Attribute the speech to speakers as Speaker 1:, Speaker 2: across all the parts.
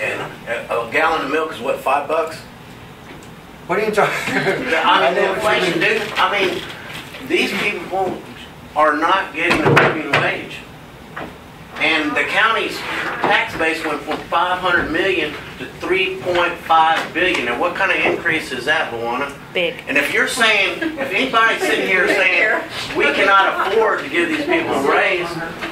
Speaker 1: A a gallon of milk is what, five bucks?
Speaker 2: What are you talking?
Speaker 1: I mean, the
Speaker 2: know what you
Speaker 1: inflation,
Speaker 2: mean.
Speaker 1: dude, I mean, these people won't- are not getting a living wage. And the county's tax base went from five hundred million to three point five billion. And what kind of increase is that, Luana?
Speaker 3: Big.
Speaker 1: And if you're saying, if anybody's sitting here saying, we cannot afford to give these people a raise,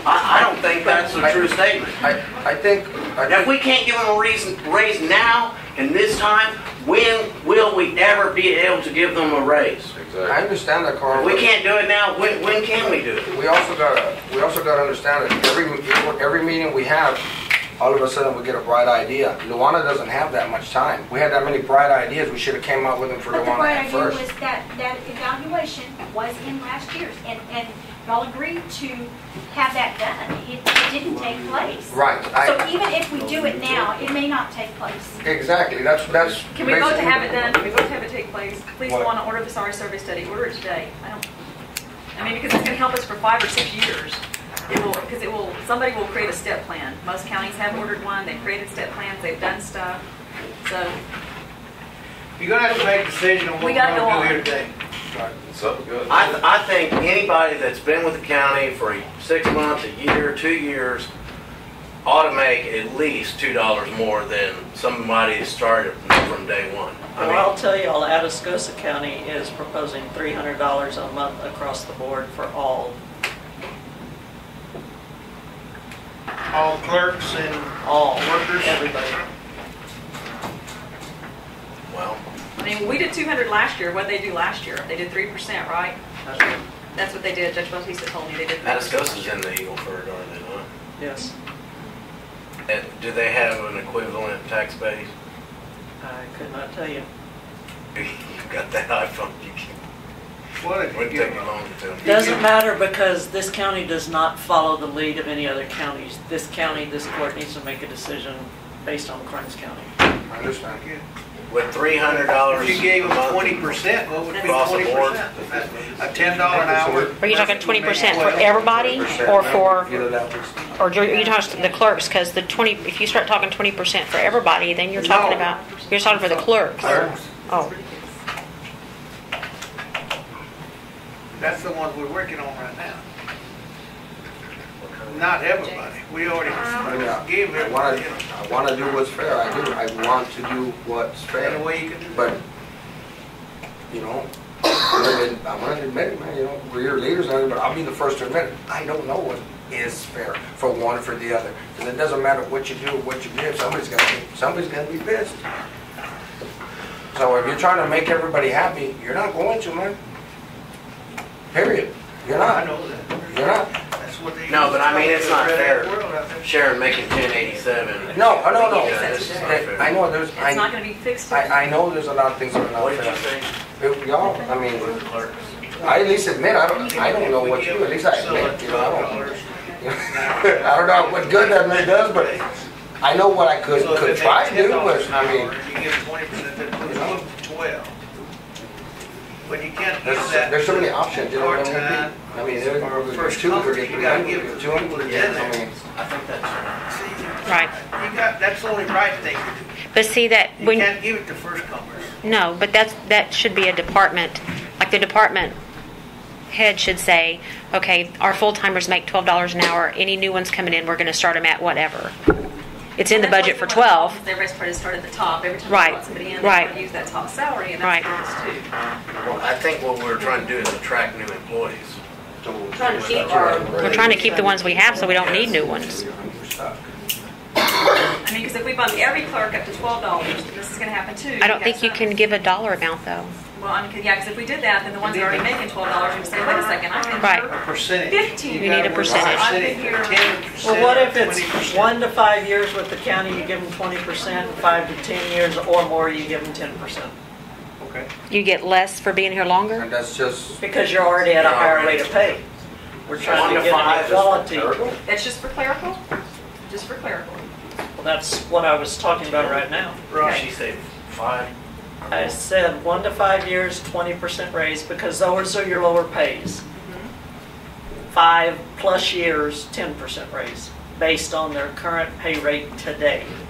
Speaker 1: I, I don't think that's a true statement.
Speaker 2: I, I think,
Speaker 1: Now,
Speaker 2: I
Speaker 1: if we can't give them a reason, raise now and this time, when will we ever be able to give them a raise?
Speaker 2: I
Speaker 4: Exactly.
Speaker 2: understand that, Carl.
Speaker 1: If we can't do it now, when, when can we do it?
Speaker 2: We also gotta, we also gotta understand that every, every meeting we have, all of a sudden we get a bright idea. Luana doesn't have that much time. We had that many bright ideas, we should've came up with them for
Speaker 5: But the
Speaker 2: Luana
Speaker 5: bright
Speaker 2: at
Speaker 5: idea was
Speaker 2: first.
Speaker 5: that, that evaluation was in last year's, and, and y'all agreed to have that done. It it didn't take place.
Speaker 2: Right,
Speaker 5: So
Speaker 2: I,
Speaker 5: even if we do it now, it may not take place.
Speaker 2: exactly, that's, that's.
Speaker 6: Can we vote to
Speaker 2: basically-
Speaker 6: have it done? Can we vote to have it take place? Please
Speaker 2: What?
Speaker 6: go on and order the SAR survey study. Order it today. I don't, I mean, because it's going to help us for five or six years. It will, because it will, somebody will create a step plan. Most counties have ordered one. They've created step plans. They've done stuff. So
Speaker 7: You're gonna have to make a decision on what
Speaker 6: We
Speaker 7: we're
Speaker 6: gotta go
Speaker 7: gonna
Speaker 6: on.
Speaker 7: do here today.
Speaker 4: It's up good.
Speaker 1: I, th- I think anybody that's been with the county for six months, a year, two years, ought to make at least two dollars more than somebody that started from day one.
Speaker 8: Well, I'll
Speaker 1: I
Speaker 8: tell you all, Atascosa County is proposing three hundred dollars a month across the board for all,
Speaker 7: All clerks and
Speaker 8: all
Speaker 7: Workers.
Speaker 8: workers, everybody.
Speaker 1: mean, well,
Speaker 6: I mean, we did 200 last year, what'd they do last year? They did 3%, right? That's what they did, Judge Bautista told me they did. 3%.
Speaker 1: Atascosa's in the Eagle Ford, are they not?
Speaker 8: Yes,
Speaker 1: And do they have an equivalent tax base?
Speaker 8: I could not tell you.
Speaker 1: You got that iPhone, you can
Speaker 7: what if you
Speaker 1: Wouldn't take
Speaker 7: give
Speaker 1: me
Speaker 7: them?
Speaker 1: long to tell. you.
Speaker 8: Doesn't matter because this county does not follow the lead of any other counties. This county, this court needs to make a decision based on Karnes County.
Speaker 2: I understand.
Speaker 1: With three hundred dollars.
Speaker 7: If you gave them twenty percent, what would be
Speaker 1: Across the
Speaker 7: twenty
Speaker 1: board.
Speaker 7: percent? A ten dollar an hour.
Speaker 3: Are you talking 20% for everybody or for,
Speaker 2: Either that was-
Speaker 3: or are you talking to the clerks? Because the 20, if you start talking 20% for everybody, then you're talking
Speaker 2: No.
Speaker 3: about, you're talking for the clerks.
Speaker 2: Clerks.
Speaker 3: Oh,
Speaker 7: That's the ones we're working on right now. Not everybody. We already
Speaker 2: Oh, Yeah.
Speaker 7: gave
Speaker 2: I
Speaker 7: everybody.
Speaker 2: wanna,
Speaker 7: you know,
Speaker 2: I wanna do what's fair, I do, I want to do what's fair.
Speaker 7: And the way you can do that.
Speaker 2: But, you know, I'm gonna admit it, man, you know, we're your leaders, and everything, but I'll be the first to admit it. I don't know what is fair for one or for the other. Because it doesn't matter what you do or what you give, somebody's gonna, be somebody's gonna be pissed. So if you're trying to make everybody happy, you're not going to, man. Period. You're
Speaker 7: I
Speaker 2: not.
Speaker 7: know that.
Speaker 2: You're not.
Speaker 7: That's what they.
Speaker 1: No, but I mean, it's not fair.
Speaker 7: World out there.
Speaker 1: Sharon making ten eighty-seven.
Speaker 2: No, oh, no,
Speaker 1: Yeah, this is not
Speaker 2: no.
Speaker 1: fair.
Speaker 2: I know there's,
Speaker 6: It's not
Speaker 2: I,
Speaker 6: going to be fixed.
Speaker 2: I, I know there's a lot of things that are
Speaker 1: What
Speaker 2: not
Speaker 1: did you
Speaker 2: fair.
Speaker 1: say?
Speaker 2: If Y'all, I mean,
Speaker 1: Clerks.
Speaker 2: I at least admit, I don't, I don't know what you do, at least I admit, you know, I don't. I don't know what good that really does, but I know what I could,
Speaker 7: So if
Speaker 2: could
Speaker 7: they
Speaker 2: try
Speaker 7: make
Speaker 2: to do,
Speaker 7: $10
Speaker 2: but
Speaker 7: an
Speaker 2: I mean,
Speaker 7: hour, You give twenty percent, then put it up to twelve. But you can't give
Speaker 2: there's,
Speaker 7: that.
Speaker 2: there's so many
Speaker 7: to
Speaker 2: options, you know what I mean?
Speaker 7: part-time
Speaker 2: I mean, there
Speaker 7: or
Speaker 2: are
Speaker 7: first
Speaker 2: two,
Speaker 7: comer.
Speaker 2: or three,
Speaker 7: You
Speaker 2: or
Speaker 7: gotta give
Speaker 2: two,
Speaker 7: people
Speaker 2: or
Speaker 7: to get
Speaker 2: I
Speaker 7: there.
Speaker 2: mean,
Speaker 1: I think that's
Speaker 3: right.
Speaker 7: You got, that's the only right thing to
Speaker 3: But see that,
Speaker 7: do. You
Speaker 3: when,
Speaker 7: can't give it to first comers.
Speaker 3: no, but that's, that should be a department, like the department head should say, okay, our full-timers make $12 an hour. Any new ones coming in, we're going to start them at whatever. It's in the budget for 12.
Speaker 6: The rest part is start at the top. Every time
Speaker 3: Right,
Speaker 6: you want somebody in,
Speaker 3: right.
Speaker 6: they to use that top salary, and that's what it's to.
Speaker 1: Well, I think what we're trying to do is attract new employees.
Speaker 2: Trying to keep
Speaker 3: We're trying to keep the ones we have so we don't need new ones.
Speaker 6: I mean, because if we bump every clerk up to $12, this is going to happen too.
Speaker 3: I don't
Speaker 6: got
Speaker 3: think you
Speaker 6: some-
Speaker 3: can give a dollar amount though.
Speaker 6: Well, I mean, 'cause- yeah, because if we did that, then the ones that are already making $12 are going to say, wait a second, I've been
Speaker 3: Right.
Speaker 6: here
Speaker 7: A percentage.
Speaker 6: Fifteen. You
Speaker 3: need a percentage.
Speaker 7: I've been here ten percent.
Speaker 8: Well, what if it's one to five years with the county, you give them twenty percent, five to ten years or more, you give them ten percent?
Speaker 7: Okay.
Speaker 3: You get less for being here
Speaker 2: And
Speaker 3: longer?
Speaker 2: that's just.
Speaker 8: Because you're already at a higher rate of pay. We're
Speaker 1: One
Speaker 8: trying
Speaker 1: to
Speaker 8: to get
Speaker 1: five
Speaker 8: an
Speaker 1: is
Speaker 8: equality.
Speaker 2: terrible.
Speaker 6: That's just for clerical? Just for clerical?
Speaker 8: Well, That's what I was talking about right now.
Speaker 1: Right. She said five.
Speaker 8: I said one to five years, twenty percent raise, because those are your lower pays. Five plus years, ten percent raise, based on their current pay rate today.